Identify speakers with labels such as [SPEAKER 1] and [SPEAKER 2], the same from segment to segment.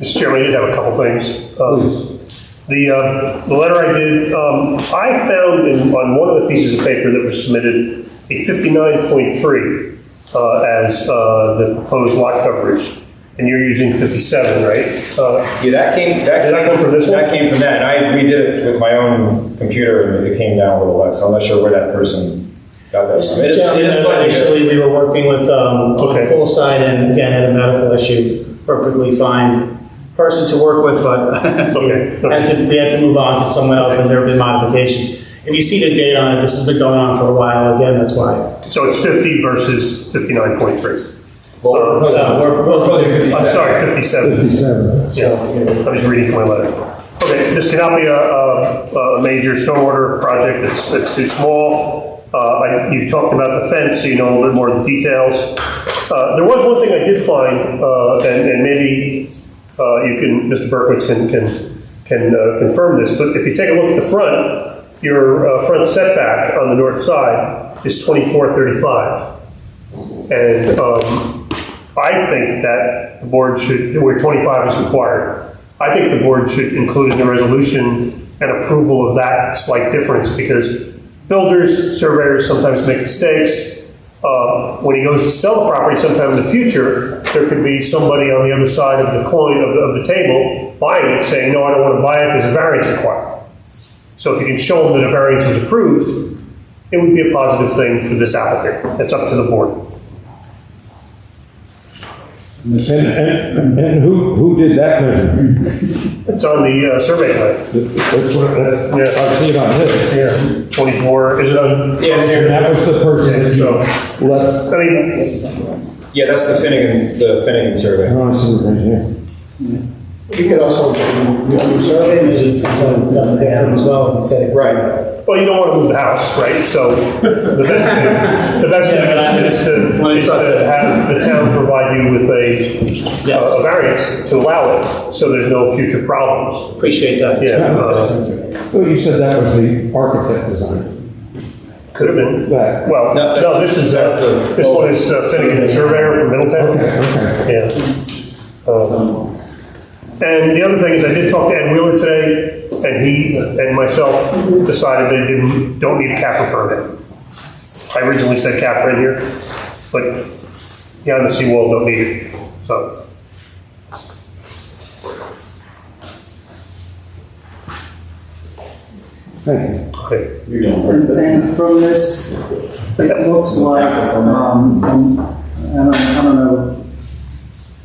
[SPEAKER 1] Mr. Chairman, I did have a couple things. Um, The, uh, the letter I did, um, I found in, on one of the pieces of paper that was submitted, a 59.3 uh, as uh, the proposed lot coverage, and you're using 57, right? Uh,
[SPEAKER 2] Yeah, that came, that.
[SPEAKER 1] Did that come from this one?
[SPEAKER 2] That came from that, and I redid it with my own computer, and it came down a little less, I'm not sure where that person got that from. It is-
[SPEAKER 3] Yeah,
[SPEAKER 2] it is slightly different.
[SPEAKER 3] Initially, we were working with um,
[SPEAKER 1] Okay.
[SPEAKER 3] Poolside and again had a medical issue, perfectly fine person to work with, but
[SPEAKER 1] Okay.
[SPEAKER 3] had to, we had to move on to someone else and there have been modifications. If you see the date on it, this has been going on for a while, again, that's why.
[SPEAKER 1] So it's 50 versus 59.3.
[SPEAKER 2] Well,
[SPEAKER 3] But, uh, We're proposing
[SPEAKER 2] Proposing
[SPEAKER 3] this,
[SPEAKER 1] I'm sorry, 57.
[SPEAKER 4] Fifty-seven.
[SPEAKER 1] Yeah, I'm just reading from my letter. Okay, this cannot be a, a, a uh, major stormwater project, it's, it's too small. Uh, I, you talked about the fence, so you know a little bit more of the details. Uh, there was one thing I did find, uh, and, and maybe, uh, you can, Mr. Berkowitz can, can, can uh, confirm this, but if you take a look at the front, your, uh, front setback on the north side is twenty-four thirty-five. And um, I think that the board should, where 25 is required, I think the board should include in the resolution an approval of that slight difference, because builders, surveyors sometimes make mistakes. Uh, When he goes to sell the property sometime in the future, there could be somebody on the other side of the coin, of the- of the table, buying it, saying, no, I don't want to buy it, there's a variance required. So if you can show them that a variance was approved, it would be a positive thing for this applicant. It's up to the board.
[SPEAKER 4] And, and, and who, who did that measurement?
[SPEAKER 1] It's on the uh, survey plan.
[SPEAKER 4] That's what, uh,
[SPEAKER 1] Yeah.
[SPEAKER 4] I see it on
[SPEAKER 1] Yeah.
[SPEAKER 4] this.
[SPEAKER 1] 24, is it on?
[SPEAKER 2] Yeah, it's here.
[SPEAKER 4] And that was the person that
[SPEAKER 1] So,
[SPEAKER 4] you left,
[SPEAKER 1] I mean,
[SPEAKER 2] yeah, that's the Finnegan, the Finnegan survey.
[SPEAKER 4] I don't see it right here.
[SPEAKER 3] you could also, you know, survey, you just, uh, down as well and say.
[SPEAKER 2] Right,
[SPEAKER 1] well, you don't want to move the house, right? So the best thing, the best thing is to, is to have the town provide you with a,
[SPEAKER 3] Yes.
[SPEAKER 1] a variance to allow it, so there's no future problems.
[SPEAKER 3] Appreciate that.
[SPEAKER 1] Yeah, uh,
[SPEAKER 4] Well, you said that was the architect design.
[SPEAKER 1] could have been,
[SPEAKER 4] That.
[SPEAKER 1] well,
[SPEAKER 2] No,
[SPEAKER 1] no, this is, uh,
[SPEAKER 2] that's the-
[SPEAKER 1] this one is uh, Finnegan the Surveyor from Middletown.
[SPEAKER 4] Okay, okay.
[SPEAKER 1] Yeah. Um, And the other thing is, I did talk to Ed Wheeler today, and he and myself decided they didn't, don't need a CAFR permit. I originally said CAFR in here, but yeah, the seawall don't need it, so.
[SPEAKER 4] Thank you.
[SPEAKER 1] okay.
[SPEAKER 5] And and from this, it looks like, um, um, I don't, I don't know,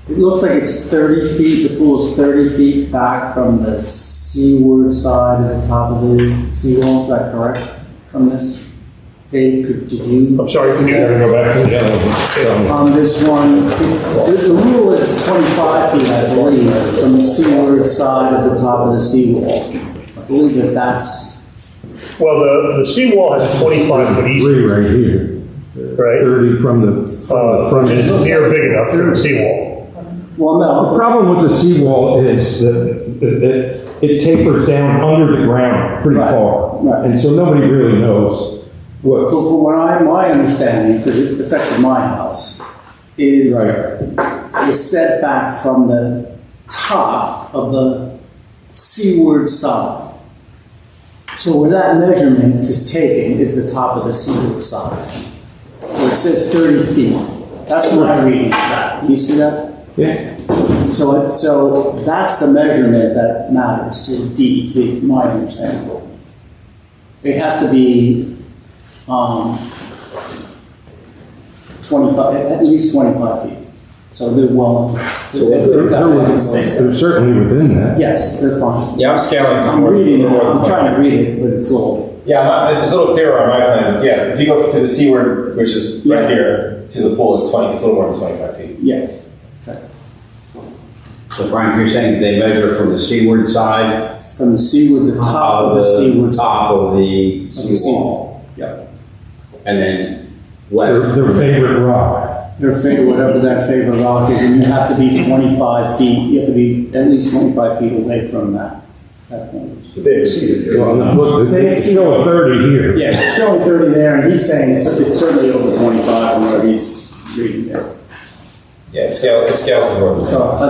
[SPEAKER 5] it looks like it's thirty feet, the pool is thirty feet back from the seaward side of the top of the seawall, is that correct? From this, Dave, could, did you?
[SPEAKER 1] I'm sorry, can you,
[SPEAKER 4] go back to the other one.
[SPEAKER 5] On this one, the, the rule is twenty-five feet, I believe, from the seaward side of the top of the seawall. I believe that that's,
[SPEAKER 1] well, the, the seawall has a 25 foot easement,
[SPEAKER 4] Three right here,
[SPEAKER 1] right?
[SPEAKER 4] thirty from the, from the
[SPEAKER 1] Uh,
[SPEAKER 4] front.
[SPEAKER 1] Which is
[SPEAKER 4] end.
[SPEAKER 1] near big enough for the seawall.
[SPEAKER 5] well,
[SPEAKER 4] The
[SPEAKER 5] no,
[SPEAKER 4] problem with the seawall is that that- that it tapers down under the ground pretty
[SPEAKER 5] Right,
[SPEAKER 4] far.
[SPEAKER 5] right.
[SPEAKER 4] And so nobody really knows what's.
[SPEAKER 5] So from what I, my understanding, because it affected my house, is
[SPEAKER 4] Right.
[SPEAKER 5] the setback from the top of the seaward side. So where that measurement is taken is the top of the seaward side. Where it says thirty feet. That's what I read. You see that?
[SPEAKER 4] Yeah.
[SPEAKER 5] So it, so that's the measurement that matters to DEP, my understanding. It has to be, um, twenty-five, at least twenty-five feet. So they're well.
[SPEAKER 4] They're- they're- they're certainly within that.
[SPEAKER 5] Yes, they're fine.
[SPEAKER 2] yeah, I'm scaling. to
[SPEAKER 5] I'm
[SPEAKER 2] more-
[SPEAKER 5] reading, it.
[SPEAKER 2] more than
[SPEAKER 5] I'm trying to
[SPEAKER 2] 25.
[SPEAKER 5] read it, but it's all,
[SPEAKER 2] Yeah, I'm not- it's a little clearer on my plan, yeah, if you go to the seaward, which is
[SPEAKER 5] Yeah.
[SPEAKER 2] right here, to the pool, it's twenty, it's a little more than twenty-five feet.
[SPEAKER 5] yes.
[SPEAKER 6] So Frank, you're saying they measure from the seaward side
[SPEAKER 5] It's from the seaward, the top
[SPEAKER 6] of
[SPEAKER 5] of the
[SPEAKER 6] the
[SPEAKER 5] seaward. side
[SPEAKER 6] Uh, top of the
[SPEAKER 5] Of the
[SPEAKER 6] seawall,
[SPEAKER 5] seawall. Yep.
[SPEAKER 6] and then
[SPEAKER 4] Their,
[SPEAKER 6] left.
[SPEAKER 4] their favorite rock.
[SPEAKER 5] Their favorite, whatever that favorite rock is, and you have to be twenty-five feet, you have to be at least twenty-five feet away from that, that point.
[SPEAKER 7] They exceeded it.
[SPEAKER 4] Well, look,
[SPEAKER 5] They
[SPEAKER 4] it's still a thirty here.
[SPEAKER 5] Yeah, it's showing thirty there, and he's saying it's, it's certainly over twenty-five, on what he's reading there.
[SPEAKER 2] Yeah, it scales, it scales the board.
[SPEAKER 5] So, I think